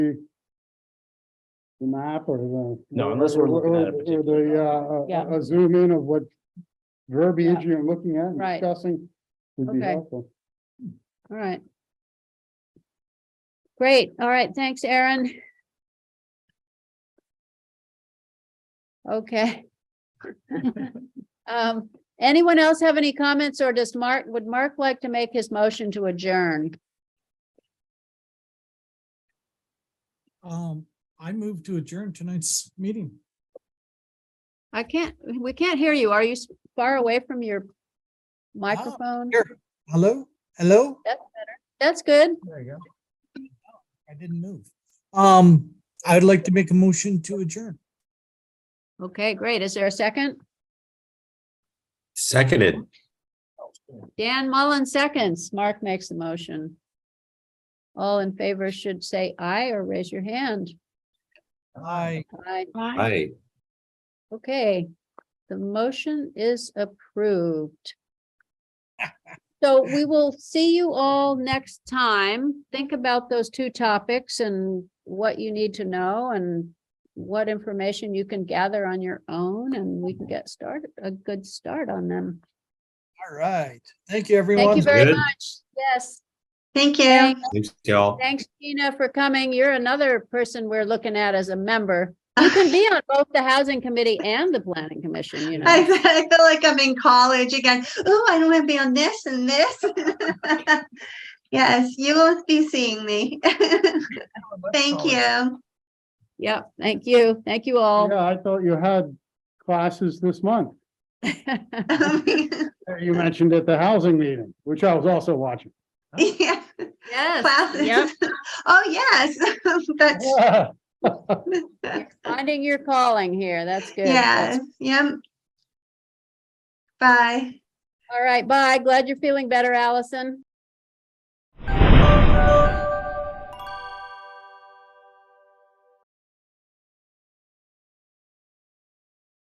the map or the. No, unless we're looking at a or- or particular the, uh, Yeah. a- a zoom in of what verbiage you're looking at and Right. discussing would be Okay. helpful. All right. Great, all right, thanks, Aaron. Okay. Um, anyone else have any comments or does Mark, would Mark like to make his motion to adjourn? Um, I move to adjourn tonight's meeting. I can't, we can't hear you. Are you s- far away from your microphone? here. Hello, hello? That's good. There you go. I didn't move. Um, I'd like to make a motion to adjourn. Okay, great. Is there a second? Seconded. Dan Mullen seconds. Mark makes the motion. All in favor should say aye or raise your hand. I. Aye. Aye. Okay, the motion is approved. So we will see you all next time. Think about those two topics and what you need to know and what information you can gather on your own and we can get started, a good start on them. All right. Thank you, everyone. Thank you very Good. much. Yes. Thank you. Thanks, Thanks, y'all. thanks, Gina, for coming. You're another person we're looking at as a member. You can be on both the Housing Committee and the Planning Commission, you know. I feel I feel like I'm in college again. Oh, I don't want to be on this and this. Yes, you will be seeing me. Thank you. Yeah, thank you. Thank you all. Yeah, I thought you had classes this month. that You mentioned at the housing meeting, which I was also watching. Yeah, Yes. yep. Classes. Oh, yes, that's, Yeah. Finding your calling here. That's good. yes, yep. Bye. All right, bye. Glad you're feeling better, Allison.